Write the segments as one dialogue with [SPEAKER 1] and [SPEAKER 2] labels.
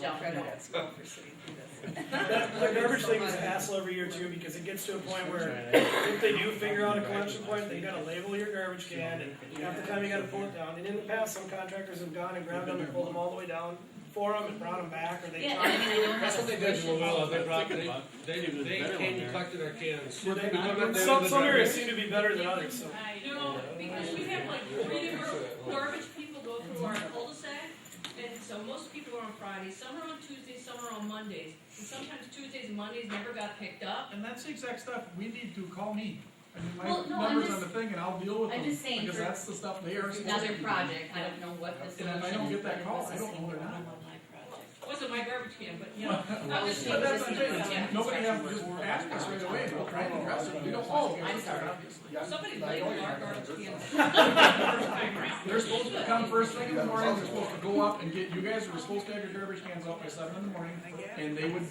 [SPEAKER 1] Don't.
[SPEAKER 2] credit at school for sitting through this.
[SPEAKER 3] That, the garbage thing is a hassle every year too, because it gets to a point where if they do figure out a collection point, they gotta label your garbage can, and half the time you gotta pull it down, and in the past, some contractors have gone and grabbed them and pulled them all the way down for them and brought them back, or they.
[SPEAKER 1] Yeah, and I mean, I don't
[SPEAKER 4] That's
[SPEAKER 1] have
[SPEAKER 4] what
[SPEAKER 1] a
[SPEAKER 4] they did to
[SPEAKER 1] solution.
[SPEAKER 4] Luella, they brought,
[SPEAKER 5] Thinking
[SPEAKER 4] they,
[SPEAKER 5] about-
[SPEAKER 4] they,
[SPEAKER 5] Maybe there's
[SPEAKER 4] they
[SPEAKER 5] a better
[SPEAKER 4] came
[SPEAKER 5] one
[SPEAKER 4] and
[SPEAKER 5] there.
[SPEAKER 4] collected our cans.
[SPEAKER 3] Well,
[SPEAKER 4] We come up
[SPEAKER 3] they-
[SPEAKER 4] there
[SPEAKER 3] Some,
[SPEAKER 4] with
[SPEAKER 3] some
[SPEAKER 4] the
[SPEAKER 3] areas
[SPEAKER 4] drivers.
[SPEAKER 3] seem to be better than others, so.
[SPEAKER 6] No, because we have like three different garbage people go through our cul-de-sac, and so most people are on Fridays, some are on Tuesdays, some are on Mondays. And sometimes Tuesdays and Mondays never got picked up.
[SPEAKER 7] And that's the exact stuff we need to call me. I mean,
[SPEAKER 1] Well, no,
[SPEAKER 7] my
[SPEAKER 1] I'm
[SPEAKER 7] numbers on
[SPEAKER 1] just-
[SPEAKER 7] the thing and I'll deal with
[SPEAKER 1] I'm
[SPEAKER 7] them.
[SPEAKER 1] just saying
[SPEAKER 7] Because
[SPEAKER 1] for-
[SPEAKER 7] that's the stuff they are. supposed
[SPEAKER 1] Another
[SPEAKER 7] to do.
[SPEAKER 1] project, I don't know what the
[SPEAKER 7] And
[SPEAKER 1] solution
[SPEAKER 7] if I
[SPEAKER 1] is.
[SPEAKER 7] don't get that
[SPEAKER 1] but it
[SPEAKER 7] call,
[SPEAKER 1] was
[SPEAKER 7] I
[SPEAKER 1] a
[SPEAKER 7] don't know
[SPEAKER 1] single
[SPEAKER 7] they're not.
[SPEAKER 1] one on my project.
[SPEAKER 6] Wasn't my garbage can, but you know, I was just.
[SPEAKER 7] But that's what I'm
[SPEAKER 6] Yeah.
[SPEAKER 7] saying, nobody has just ask us right away, we'll try and address it, we don't.
[SPEAKER 1] Oh, I'm sorry.
[SPEAKER 6] Somebody
[SPEAKER 7] oh,
[SPEAKER 6] labeled our garbage cans.
[SPEAKER 7] They're supposed to come first thing in the morning, they're supposed to go up and get, you guys were supposed to have your garbage cans out by seven in the morning. And they would,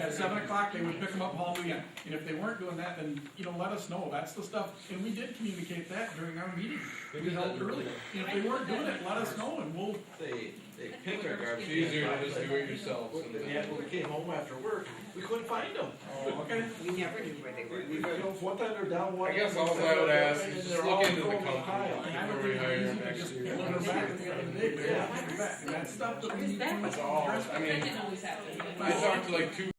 [SPEAKER 7] at seven o'clock, they would pick them up, haul them in. And if they weren't doing that, then, you know, let us know, that's the stuff. And we did communicate that during our meeting,
[SPEAKER 4] They
[SPEAKER 7] we
[SPEAKER 4] did that
[SPEAKER 7] held early. And if they weren't doing it, let us know and we'll
[SPEAKER 8] They, they
[SPEAKER 6] That's
[SPEAKER 8] pick our
[SPEAKER 6] what we're
[SPEAKER 8] garbage.
[SPEAKER 4] It's
[SPEAKER 8] cans
[SPEAKER 6] getting
[SPEAKER 4] easier
[SPEAKER 8] up.
[SPEAKER 4] to just do it yourself. sometimes.
[SPEAKER 8] Yeah, when we came home after work, we couldn't find them.
[SPEAKER 7] Okay.
[SPEAKER 2] We never knew where they were.
[SPEAKER 8] We- we got-
[SPEAKER 7] One time they're down
[SPEAKER 4] I guess all I would ask is just look into the company before we hire an
[SPEAKER 7] Pulling them back at the end of the day, but
[SPEAKER 8] Yeah.
[SPEAKER 7] they're back, and that stuff that we need to
[SPEAKER 1] It's
[SPEAKER 4] That's all, I
[SPEAKER 6] That
[SPEAKER 4] mean,
[SPEAKER 6] didn't always happen.
[SPEAKER 4] I talked to like two